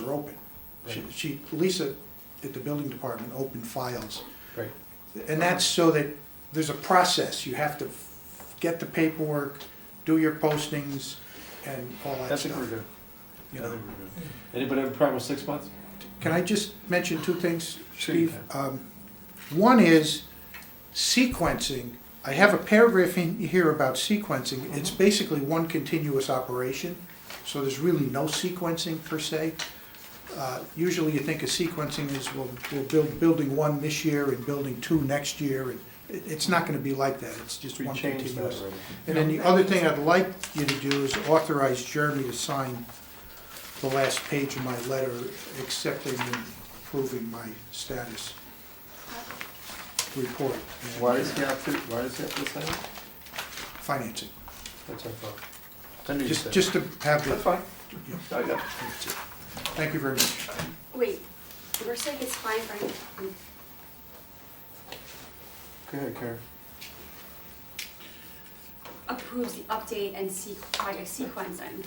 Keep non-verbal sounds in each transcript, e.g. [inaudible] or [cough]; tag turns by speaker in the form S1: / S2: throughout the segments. S1: are open. She- She, Lisa, at the building department, opened files.
S2: Right.
S1: And that's so that, there's a process, you have to f- get the paperwork, do your postings, and all
S2: I
S1: that
S2: think we're
S1: stuff.
S2: good. I
S1: you
S2: think
S1: know.
S2: we're good. Anybody have a problem with six months?
S1: Can I just mention two things,
S2: Sure you
S1: Steve? Um, One is sequencing. I have a paragraph in here about
S2: Mm-hmm.
S1: sequencing. It's basically one continuous operation, so there's really no sequencing per se. Uh, Usually you think of sequencing as we'll, we'll build building one this year and building two next year, and it, it's not gonna be like that. It's just
S2: We
S1: one
S2: changed that
S1: continuous.
S2: already.
S1: And then the other thing I'd like you to do is authorize Jeremy to sign the last page of my letter accepting and approving my status report. and
S2: Why does he have to, why does he have to sign it?
S1: Financing,
S2: That's our fault. I knew you
S1: just,
S2: said.
S1: just to
S2: That's
S1: have the,
S2: fine. I got it.
S1: thank you very much.
S3: Wait, we're saying it's fine for him.
S2: Go ahead, Karen.
S3: approves the update and se- project sequencing.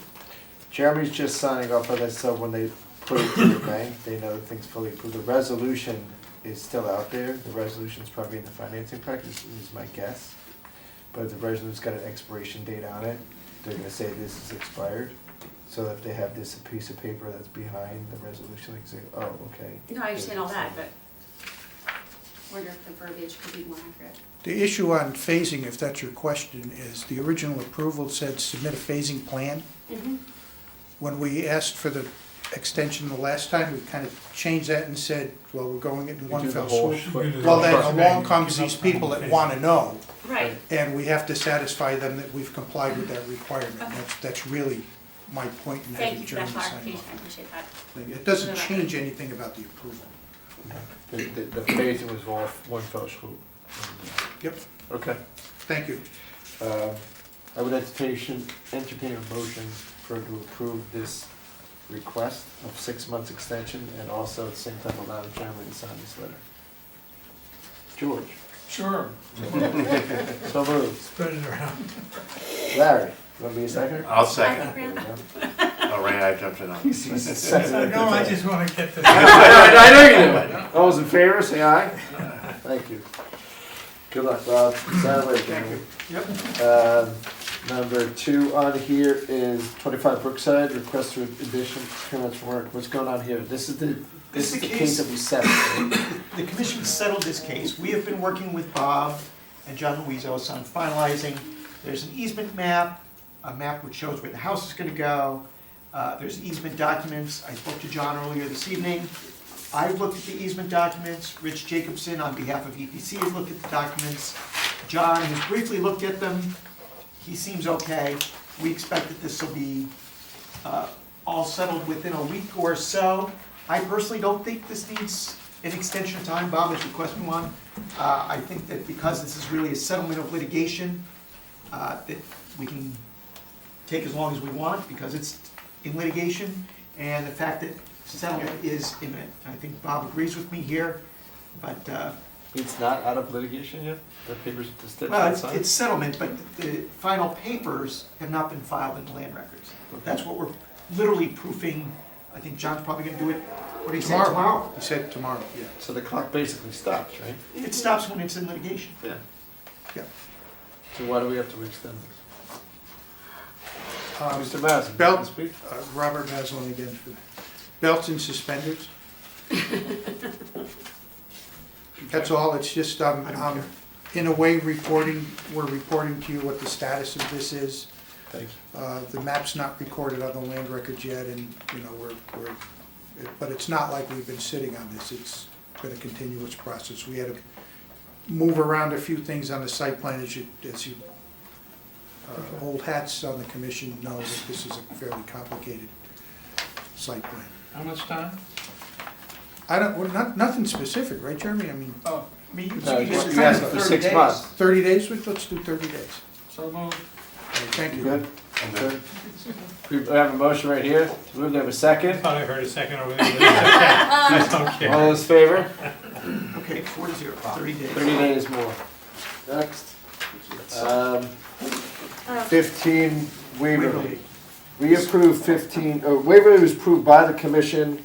S4: Jeremy's just signing off on this, so when they put it to the bank, they know that things fully approved. The resolution is still out there, the resolution's probably in the financing practice, is my guess. But the resolution's got an expiration date on it, they're gonna say this is expired. So if they have this piece of paper that's behind the resolution, they can say, oh, okay.
S3: No, I understand all that, but I wonder if the verbiage could be more accurate.
S1: The issue on phasing, if that's your question, is the original approval said submit a phasing plan.
S3: Mm-hmm.
S1: When we asked for the extension the last time, we kind of changed that and said, well, we're going it in one fell swoop. Well, then along comes these people that wanna know,
S3: Right,
S1: and we have to satisfy them that we've complied with that requirement. That's, that's really my point in
S3: thank
S1: having
S3: you for that
S1: Jeremy sign
S3: clarification,
S1: off.
S3: I appreciate that.
S1: It doesn't change anything about the approval.
S2: The, the, the phasing was all one fell swoop.
S1: Yep,
S2: Okay.
S1: thank you.
S4: Um, I would entertain, entertain a motion for to approve this request of six months extension and also at the same time allow Jeremy to sign this letter. George,
S5: Sure.
S4: [laughs] so moved.
S5: Spread it around.
S4: Larry, you want to be a second?
S6: I'll
S3: I
S6: second.
S3: agree on that.
S6: Oh, Ray, I jumped in on you.
S5: Uh, No, I just want to get this.
S4: I know you do. All those in favor, say aye. Thank you. Good luck, Bob. Sign it later, Jeremy. Um, Number two on here is twenty-five Brookside, request for addition, permits for work. What's going on here? This is the, this is the case that we set.
S7: The commission settled this case. We have been working with Bob and John Luizos on finalizing. There's an easement map, a map which shows where the house is gonna go. Uh, there's easement documents. I spoke to John earlier this evening. I've looked at the easement documents. Rich Jacobson, on behalf of EPC, has looked at the documents. John has briefly looked at them. He seems okay. We expect that this will be uh, all settled within a week or so. I personally don't think this needs an extension of time, Bob has requested one. Uh, I think that because this is really a settlement of litigation, uh, that we can take as long as we want, because it's in litigation, and the fact that settlement is imminent. I think Bob agrees with me here, but, uh,
S4: It's not out of litigation yet? The papers just didn't
S7: well, it's-
S4: sign?
S7: it's settlement, but the final papers have not been filed in the land records. That's what we're literally proofing, I think John's probably gonna do it, what do you say, tomorrow?
S1: He said tomorrow, yeah.
S4: So the clock basically stops, right?
S7: It stops when it's in litigation.
S4: Yeah.
S1: Yeah.
S4: So why do we have to extend this?
S1: Um,
S4: Mr. Maslin?
S1: Belt-
S4: can you speak?
S1: uh, Robert Maslin again for that. Belts and suspenders. That's all, it's just, um,
S7: I don't
S1: um, in a way, reporting, we're reporting to you what the status of this is.
S4: Thank you.
S1: Uh, the map's not recorded on the land records yet, and, you know, we're, we're, it- but it's not like we've been sitting on this, it's been a continuous process. We had to move around a few things on the site plan, as you, as you, uh, old hats on the commission know that this is a fairly complicated site plan.
S5: How much time?
S1: I don't, well, not, nothing specific, right, Jeremy? I mean,
S5: Oh,
S7: I mean, you
S4: No,
S7: you
S4: Uh, you
S7: just
S4: asked
S7: kind of
S4: for
S7: thirty
S4: six
S7: days.
S4: months.
S1: thirty days, Let's- let's do thirty days.
S5: so moved.
S1: Thank
S4: You
S1: you.
S4: good? I'm good. We have a motion right here, move to have a
S5: I
S4: second,
S5: thought I heard a second over
S1: [laughs]
S5: there. That's [laughs] okay.
S4: all those in favor,
S7: Okay, four to zero, thirty days.
S4: thirty days more. Next. Um, Fifteen Waverly. We approved fifteen, uh, Waverly was approved by the commission